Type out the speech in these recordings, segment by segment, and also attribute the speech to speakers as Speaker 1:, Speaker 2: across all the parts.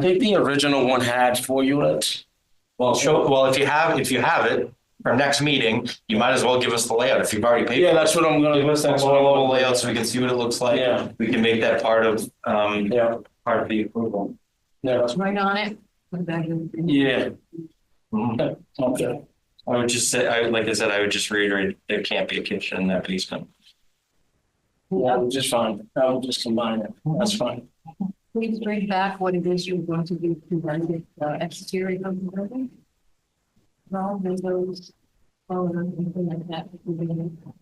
Speaker 1: I think the original one had four units.
Speaker 2: Well, show, well, if you have, if you have it for next meeting, you might as well give us the layout if you've already paid.
Speaker 1: Yeah, that's what I'm gonna.
Speaker 2: Give us that global layout so we can see what it looks like.
Speaker 1: Yeah.
Speaker 2: We can make that part of, um,
Speaker 1: Yeah,
Speaker 2: part of the approval.
Speaker 1: yeah, that's-
Speaker 3: Right on it. Put it back in.
Speaker 1: yeah, Mm-hmm.
Speaker 2: Mhm.
Speaker 1: okay,
Speaker 2: I would just say, I, would- like I said, I would just reiterate, there can't be a kitchen in that basement.
Speaker 1: yeah, we're just fine, I will just combine it, that's fine.
Speaker 3: Please bring back what it is you're going to do to run the uh, exterior of the building. All windows, all of them, anything like that.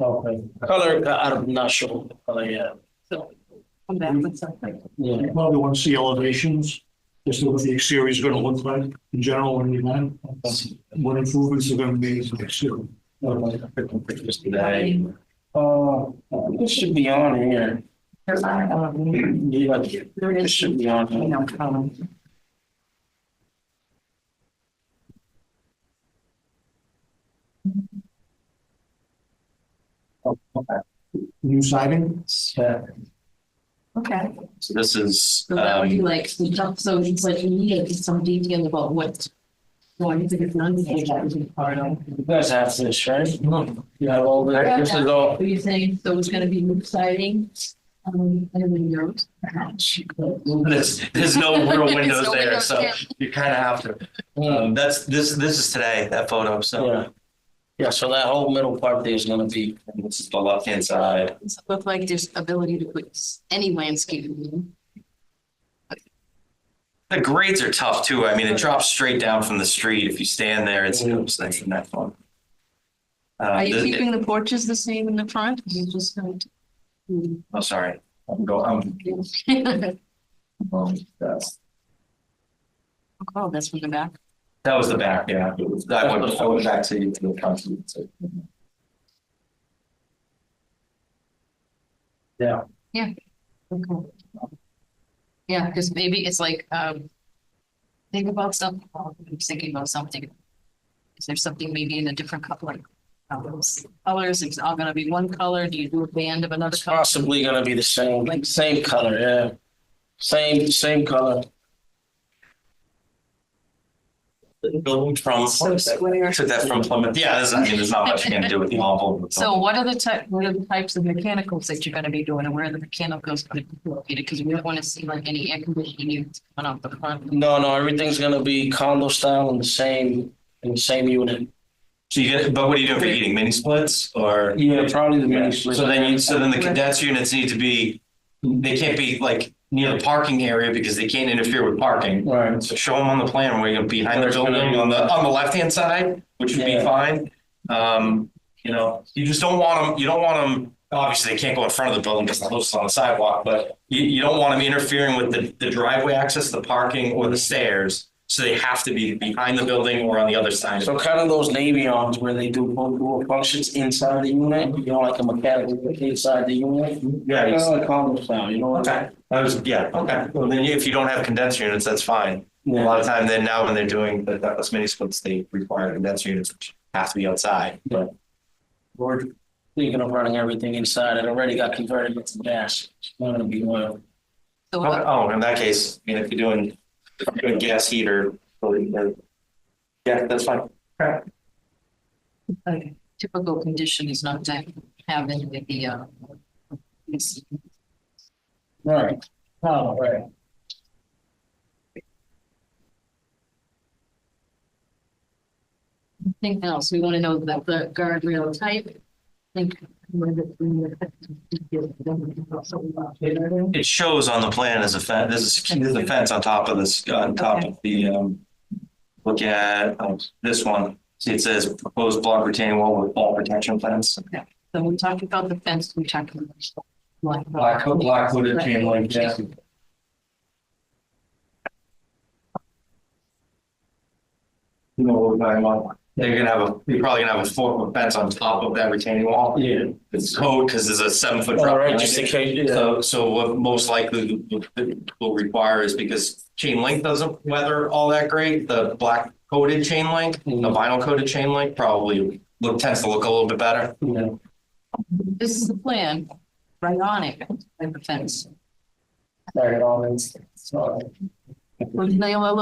Speaker 1: Okay. Color, I- I'm not sure, Oh, of the color yet.
Speaker 3: So come back with something.
Speaker 1: yeah.
Speaker 4: You Probably want to see elevations, just what the exterior is gonna look like in general when you land. What improvements are gonna be to the exterior.
Speaker 1: Okay.
Speaker 2: Just that.
Speaker 1: Uh, this should be on here.
Speaker 3: There's our, um,
Speaker 1: Yeah,
Speaker 3: There
Speaker 1: this
Speaker 3: is,
Speaker 1: should
Speaker 3: you
Speaker 1: be on here.
Speaker 3: know, um, column.
Speaker 4: New siding,
Speaker 1: Yeah.
Speaker 3: Okay,
Speaker 2: So this is,
Speaker 3: so that would be
Speaker 2: um,
Speaker 3: like, some tough- so it's like you need some detail about what. Well, I think it's not, that would be part of.
Speaker 1: You guys have this, right? You have all the, this is all.
Speaker 3: Are you saying, so it's gonna be new siding, um, and windows? perhaps?
Speaker 2: there's, there's no real windows
Speaker 3: no
Speaker 2: there,
Speaker 3: windows,
Speaker 2: so
Speaker 3: yeah.
Speaker 2: you kind of have to. Um, that's, this, this is today, that photo, so.
Speaker 1: Yeah. Yeah, so that whole middle part there is gonna be,
Speaker 2: And This is the left-hand side.
Speaker 3: Does it Look like there's ability to put s- any landscaping in.
Speaker 2: The grades are tough too. I mean, it drops straight down from the street. If you stand there, it's it's nice and that fun. Uh,
Speaker 3: Are you
Speaker 2: the-
Speaker 3: keeping the porches the same in the front? You're just going to. Hmm.
Speaker 2: Oh, sorry. I'm go, I'm, um, that's-
Speaker 3: Oh, that's from the back.
Speaker 2: that was the back, yeah. I went, I went back to, to the council. so.
Speaker 3: Okay. Yeah, because maybe it's like, um, think about something, I'm thinking about something. Is there something maybe in a different color? Colors, Colors, it's all gonna be one color, do you do a band of another
Speaker 1: it's
Speaker 3: color?
Speaker 1: possibly gonna be the same, like, same color, yeah. Same, same color.
Speaker 2: Building from.
Speaker 3: So square.
Speaker 2: Took that from Plymouth. Yeah, there's, I mean, there's not much you can do with the envelope.
Speaker 3: So what are the type, what are the types of mechanicals that you're gonna be doing and where are the mechanicals gonna be located? Because we don't wanna see like any air conditioning units coming out the front.
Speaker 1: No, no, everything's gonna be condo style in the same, in the same unit.
Speaker 2: So you get, but what are you doing for heating? Mini splits or?
Speaker 1: Yeah, probably the
Speaker 2: Yeah,
Speaker 1: mini split.
Speaker 2: So then you, so then the condenser units need to be, they can't be like near the parking area because they can't interfere with parking.
Speaker 1: Right.
Speaker 2: So show them on the plan where you're behind the
Speaker 1: There's gonna-
Speaker 2: building on the, on the left-hand side, which would be
Speaker 1: Yeah.
Speaker 2: fine. Um, you know, you just don't want them, you don't want them, obviously they can't go in front of the building because the house is on the sidewalk, but you, you don't want them interfering with the, the driveway access, the parking or the stairs. So they have to be behind the building or on the other side.
Speaker 1: So kind of those Navy arms where they do both dual functions inside the unit, you know, like a mechanical inside the unit.
Speaker 2: Yeah,
Speaker 1: Kind of
Speaker 2: it's-
Speaker 1: like condo style, you know? what I
Speaker 2: okay. I was, yeah, okay. Well, then if you don't have condenser units, that's fine.
Speaker 1: mean?
Speaker 2: A lot of time then now when they're doing the ductless mini splits, they require condenser units which have to be outside.
Speaker 1: We're thinking of running everything inside. It already got converted into gas. It's not gonna be oil.
Speaker 3: So
Speaker 2: Okay,
Speaker 3: what,
Speaker 2: Oh, in that case, I mean, if you're doing, if you're doing gas heater. really, uh, Yeah, that's fine.
Speaker 3: like, typical condition is not to have any of the, uh, it's-
Speaker 1: Right. Oh, right.
Speaker 3: Anything else? We want to know about the guardrail type. Think.
Speaker 2: It shows on the plan as a fence, there's a, sec- there's a fence on top of this, uh, on top of the, um, look at um, this one. See, it says proposed block retaining wall with ball protection fence.
Speaker 3: So we talked about the fence, we talked about. Black.
Speaker 2: Black, ho- black hooded chain link, yeah. You know, what I'm talking about. they're gonna have a, you're probably gonna have a four foot fence on top of that retaining wall.
Speaker 1: Yeah.
Speaker 2: It's code because there's a seven foot drop.
Speaker 1: All right,
Speaker 2: line.
Speaker 1: just in case. yeah.
Speaker 2: So, so what most likely will require is because chain link doesn't weather all that great, the black coated chain link, the vinyl coated chain link probably look, tends to look a little bit better.
Speaker 1: Yeah.
Speaker 3: This is the plan, right on it, like the fence.
Speaker 1: Bag it all in. Sorry.
Speaker 3: Well, Naomi,